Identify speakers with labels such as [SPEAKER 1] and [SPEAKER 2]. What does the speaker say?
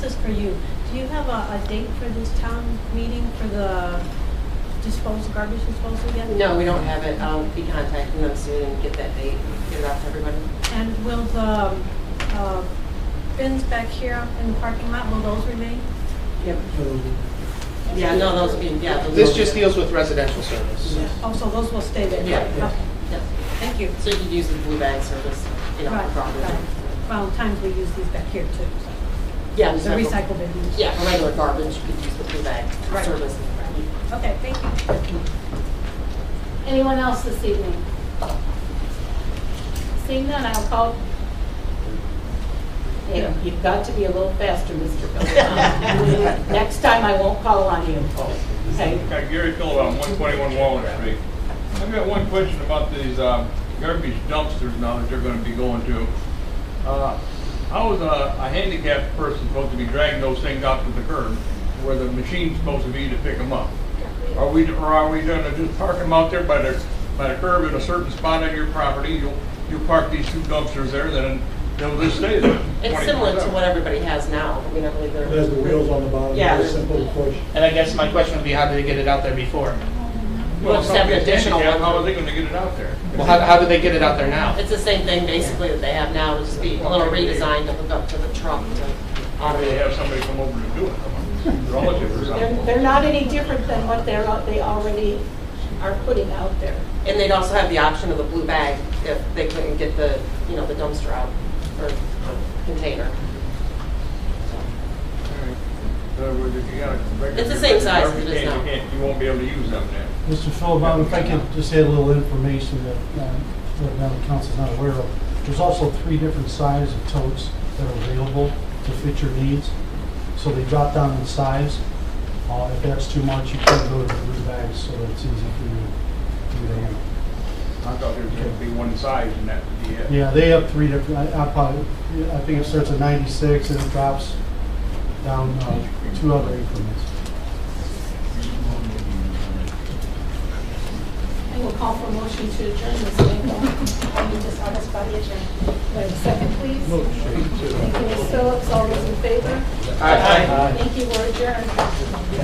[SPEAKER 1] This is for you. Do you have a, a date for this town meeting for the disposal, garbage disposal yet?
[SPEAKER 2] No, we don't have it. I'll be contacting them soon and get that date, get it out to everybody.
[SPEAKER 1] And will the, um, uh, bins back here in the parking lot, will those remain?
[SPEAKER 2] Yep. Yeah, no, those will be, yeah. those will
[SPEAKER 3] This
[SPEAKER 2] be-
[SPEAKER 3] just deals with residential service.
[SPEAKER 1] Oh, so those will stay there?
[SPEAKER 2] Yeah.
[SPEAKER 1] Okay,
[SPEAKER 2] Yep.
[SPEAKER 1] thank you.
[SPEAKER 2] So you can use the blue bag service, you know,
[SPEAKER 1] Right,
[SPEAKER 2] for garbage.
[SPEAKER 1] right. Well, times we use these back here too,
[SPEAKER 2] Yeah,
[SPEAKER 1] so
[SPEAKER 2] just
[SPEAKER 1] the
[SPEAKER 2] have a-
[SPEAKER 1] recycle bins.
[SPEAKER 2] Yeah, for regular garbage, you could use the blue bag
[SPEAKER 1] Right.
[SPEAKER 2] service.
[SPEAKER 1] Okay, thank you.
[SPEAKER 4] Anyone else this evening? Seeing none, I'll call,
[SPEAKER 5] Yeah, You've got to be a little faster, Mr. Philip. Next time I won't call on you. Okay?
[SPEAKER 6] Hi, Gary Phillip, on 121 Walnut Street. I've got one question about these um, garbage dumpsters now that they're going to be going to. Uh, How is a a handicapped person supposed to be dragging those things out to the curb where the machine's supposed to be to pick them up? Are we, or are we going to just park them out there by the, by the curb in a certain spot on your property? You'll, you park these two dumpsters there, then they'll just stay there.
[SPEAKER 2] It's
[SPEAKER 6] 24/7.
[SPEAKER 2] similar to what everybody has now. I mean, I believe they're.
[SPEAKER 7] There's the wheels on the bottom,
[SPEAKER 2] Yeah.
[SPEAKER 7] very simple push.
[SPEAKER 3] And I guess my question would be, how do they get it out there before?
[SPEAKER 2] We'll
[SPEAKER 6] Well,
[SPEAKER 2] just have an
[SPEAKER 6] somebody's
[SPEAKER 2] additional
[SPEAKER 6] handicapped,
[SPEAKER 2] one.
[SPEAKER 6] how are they going to get it out there?
[SPEAKER 3] Well, how, how do they get it out there now?
[SPEAKER 2] It's the same thing basically that they have now, it'll just be a little redesigned to hook up to the truck to
[SPEAKER 6] How do they
[SPEAKER 2] automate.
[SPEAKER 6] have somebody come over to do it? Relative or
[SPEAKER 5] They're,
[SPEAKER 6] something?
[SPEAKER 5] they're not any different than what they're, they already are putting out there.
[SPEAKER 2] And they'd also have the option of the blue bag if they couldn't get the, you know, the dumpster out or container.
[SPEAKER 6] In other words, if you got a regular-
[SPEAKER 2] It's the same size as it is
[SPEAKER 6] You can't-
[SPEAKER 2] now.
[SPEAKER 6] You can't, you won't be able to use them then.
[SPEAKER 8] Mr. Philbin, if I could just add a little information that, uh, that now the council's not aware of. There's also three different sizes of totes that are available to fit your needs. So they drop down in size. Uh, If that's too much, you can go to the blue bags, so it's easy for you for you to handle.
[SPEAKER 6] I thought there was gonna be one size and that would be it.
[SPEAKER 8] Yeah, they have three different, I I probably, I think it starts at 96 and it drops down uh, two other increments.
[SPEAKER 5] I will call for a motion to adjourn this meeting. I need this on this body adjourn. Do I have a second, please? Thank you, Ms. Phillips. All those in favor?
[SPEAKER 3] Aye.
[SPEAKER 5] Thank you. We're adjourned.